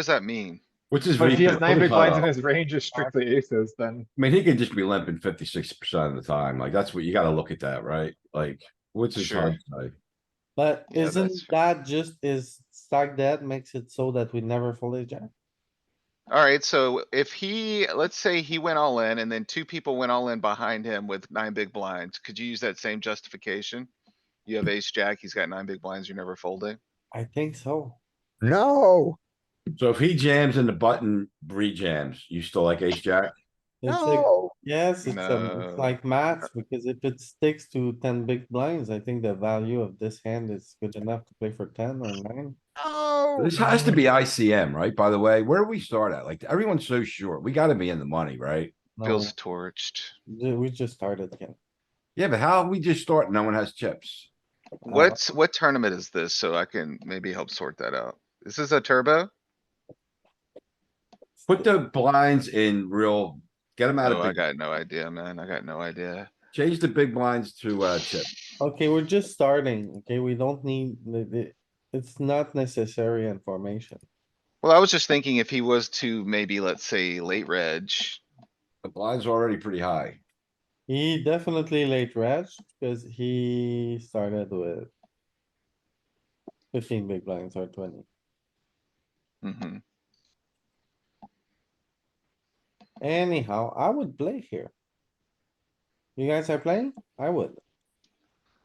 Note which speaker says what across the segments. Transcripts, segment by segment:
Speaker 1: does that mean?
Speaker 2: Which is.
Speaker 3: But if he has
Speaker 2: ridiculous.
Speaker 3: nine big blinds in
Speaker 2: Uh,
Speaker 3: his range is strictly aces, then
Speaker 2: I mean, he could just be limping fifty-six percent of the time, like, that's what, you gotta look at that, right? Like, which is
Speaker 1: Sure.
Speaker 2: hard, to say.
Speaker 4: But
Speaker 1: Yeah,
Speaker 4: isn't
Speaker 1: that's
Speaker 4: that just is stack that makes it so that we never fold a jack?
Speaker 1: Alright, so if he, let's say he went all in and then two people went all in behind him with nine big blinds, could you use that same justification? You have ace jack, he's got nine big blinds, you're never folding.
Speaker 4: I think so.
Speaker 5: No,
Speaker 2: so if he jams and the button re-jams, you still like ace jack?
Speaker 4: It's like,
Speaker 5: no.
Speaker 4: yes, it's, a-
Speaker 1: No.
Speaker 4: it's like maths, because if it sticks to ten big blinds, I think the value of this hand is good enough to play for ten or nine.
Speaker 5: No.
Speaker 2: This has to be ICM, right? By the way, where do we start at? Like, everyone's so short, we gotta be in the money, right?
Speaker 4: No,
Speaker 1: Feels torched.
Speaker 4: ju- We just started again.
Speaker 2: Yeah, but how we just start, no one has chips.
Speaker 1: What's, what tournament is this? So I can maybe help sort that out. This is a turbo?
Speaker 2: Put the blinds in real, get them out
Speaker 1: Oh,
Speaker 2: of,
Speaker 1: I
Speaker 2: big-
Speaker 1: got no idea, man. I got no idea.
Speaker 2: change the big blinds to, uh, chip.
Speaker 4: Okay, we're just starting, okay? We don't need, the- the- it's not necessary information.
Speaker 1: Well, I was just thinking if he was to maybe, let's say, late reg,
Speaker 2: The blinds are already pretty high.
Speaker 4: He definitely late reg, because he started with fifteen big blinds or twenty.
Speaker 1: hmm
Speaker 4: Anyhow, I would play here. You guys are playing? I would.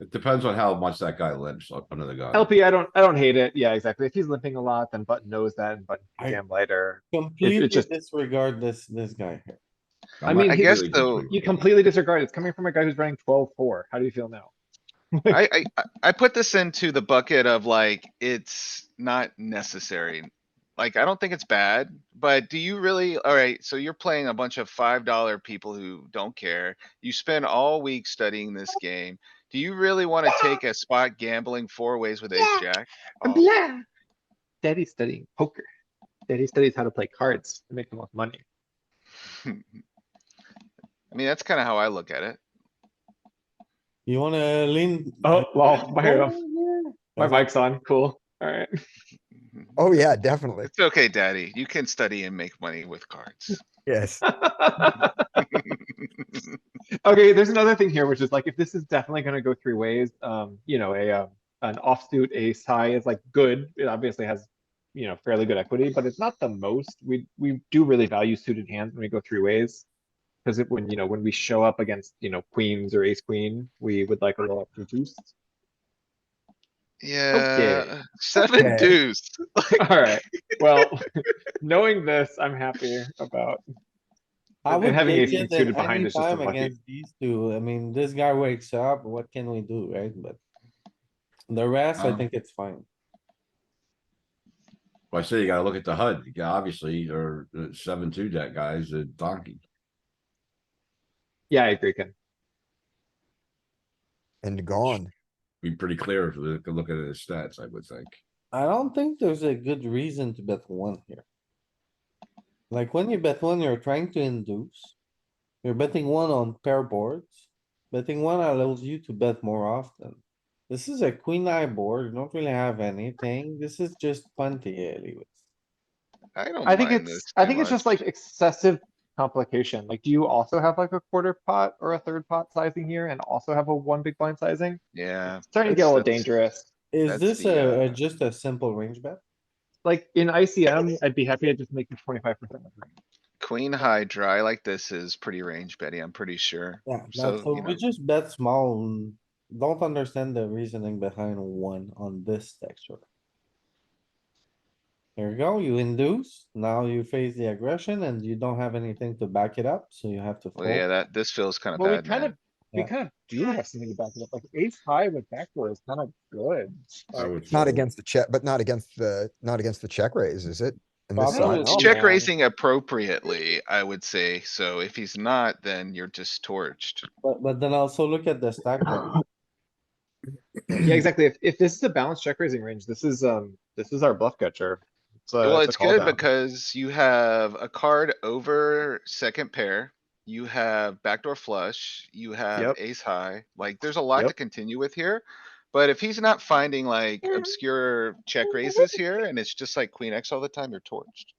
Speaker 2: It depends on how much that guy limps up under the gun.
Speaker 3: LP, I don't, I don't hate it. Yeah, exactly. If he's limping a lot, then button knows that and button
Speaker 4: I-
Speaker 3: can jam later.
Speaker 4: Completely
Speaker 3: just-
Speaker 4: disregard this, this guy here.
Speaker 2: I'm
Speaker 3: I
Speaker 2: not
Speaker 3: mean,
Speaker 2: really
Speaker 1: guess
Speaker 2: good
Speaker 1: though-
Speaker 2: with
Speaker 3: You
Speaker 2: it.
Speaker 3: completely disregard. it. It's coming from a guy who's running twelve four. How do you feel now?
Speaker 1: I, I, I- I put this into the bucket of like, it's not necessary. Like, I don't think it's bad, but do you really, alright, so you're playing a bunch of five dollar people who don't care. You spend all week studying this game. Do you really wanna take a spot gambling four ways with ace jack? off?
Speaker 3: Yeah. Daddy's studying poker. Daddy studies how to play cards to make the most money.
Speaker 1: I mean, that's kinda how I look at it.
Speaker 4: You wanna lean?
Speaker 3: Oh, well, my, um, my
Speaker 4: That's-
Speaker 3: mic's on. Cool. Alright.
Speaker 5: Oh, yeah, definitely.
Speaker 1: It's okay, daddy. You can study and make money with cards.
Speaker 5: Yes.
Speaker 3: Okay, there's another thing here, which is like, if this is definitely gonna go three ways, um, you know, a, um, an offsuit ace high is like good. It obviously has, you know, fairly good equity, but it's not the most. We, we do really value suited hands when we go three ways. Cause it, when, you know, when we show up against, you know, queens or ace queen, we would like a little extra juice.
Speaker 1: Yeah, seven
Speaker 5: Okay.
Speaker 1: deuce.
Speaker 3: Alright, well, knowing this, I'm happy about,
Speaker 4: I
Speaker 3: and
Speaker 4: would
Speaker 3: having
Speaker 4: take
Speaker 3: ace
Speaker 4: it
Speaker 3: suited
Speaker 4: at
Speaker 3: behind
Speaker 4: any
Speaker 3: is just
Speaker 4: time
Speaker 3: unlucky.
Speaker 4: against these two. I mean, this guy wakes up, what can we do, right? But the rest, I
Speaker 2: Um,
Speaker 4: think it's fine.
Speaker 2: Well, I say you gotta look at the HUD, yeah, obviously, or uh, seven two deck guys, a donkey.
Speaker 3: yeah, I agree, Ken.
Speaker 5: And gone.
Speaker 2: Be pretty clear if you could look at his stats, I would think.
Speaker 4: I don't think there's a good reason to bet one here. Like when you bet one, you're trying to induce. You're betting one on pair boards. Betting one allows you to bet more often. This is a queen eye board. You don't really have anything. This is just punty anyways.
Speaker 1: I don't
Speaker 3: I think
Speaker 1: mind this
Speaker 3: it's, I
Speaker 1: too
Speaker 3: think it's just
Speaker 1: much.
Speaker 3: like excessive complication. Like, do you also have like a quarter pot or a third pot sizing here and also have a one big blind sizing?
Speaker 1: Yeah.
Speaker 3: It's Starting to get a little
Speaker 1: that's-
Speaker 3: dangerous.
Speaker 4: Is
Speaker 1: That's
Speaker 4: this
Speaker 1: the,
Speaker 4: a, a-
Speaker 1: uh,
Speaker 4: just a simple range bet?
Speaker 3: Like in ICM, I'd be happy to just make it twenty-five percent.
Speaker 1: Queen high dry like this is pretty range Betty, I'm pretty sure.
Speaker 4: Yeah, that's-
Speaker 1: So,
Speaker 4: so
Speaker 1: you
Speaker 4: we
Speaker 1: know.
Speaker 4: just bet small. and Don't understand the reasoning behind one on this texture. There you go, you induce, now you face the aggression and you don't have anything to back it up, so you have to
Speaker 1: Well, yeah,
Speaker 4: fold.
Speaker 1: that, this feels kinda
Speaker 3: Well, we
Speaker 1: bad,
Speaker 3: kind of,
Speaker 1: man.
Speaker 3: we
Speaker 4: Yeah.
Speaker 3: kind of do have something to back it up. Like ace high with backdoor is kind of good.
Speaker 2: I
Speaker 3: Like,
Speaker 2: would
Speaker 5: Not
Speaker 2: say.
Speaker 5: against the check, but not against the, not against the check raise, is it? In
Speaker 4: Well,
Speaker 5: this
Speaker 4: I'm
Speaker 3: not
Speaker 5: side?
Speaker 4: gonna
Speaker 1: It's
Speaker 3: Oh,
Speaker 1: check
Speaker 3: man.
Speaker 1: raising appropriately, I would say. So if he's not, then you're just torched.
Speaker 4: But, but then also look at the stack. rank.
Speaker 3: Yeah, exactly. If, if this is a balanced check raising range, this is, um, this is our bluff catcher. a-
Speaker 1: Well,
Speaker 3: a
Speaker 1: it's good
Speaker 3: callback.
Speaker 1: because you have a card over second pair. You have backdoor flush, you have
Speaker 3: Yep.
Speaker 1: ace high, like there's a lot to
Speaker 3: Yep.
Speaker 1: continue with here. But if he's not finding like obscure check raises here and it's just like queen X all the time, you're torched.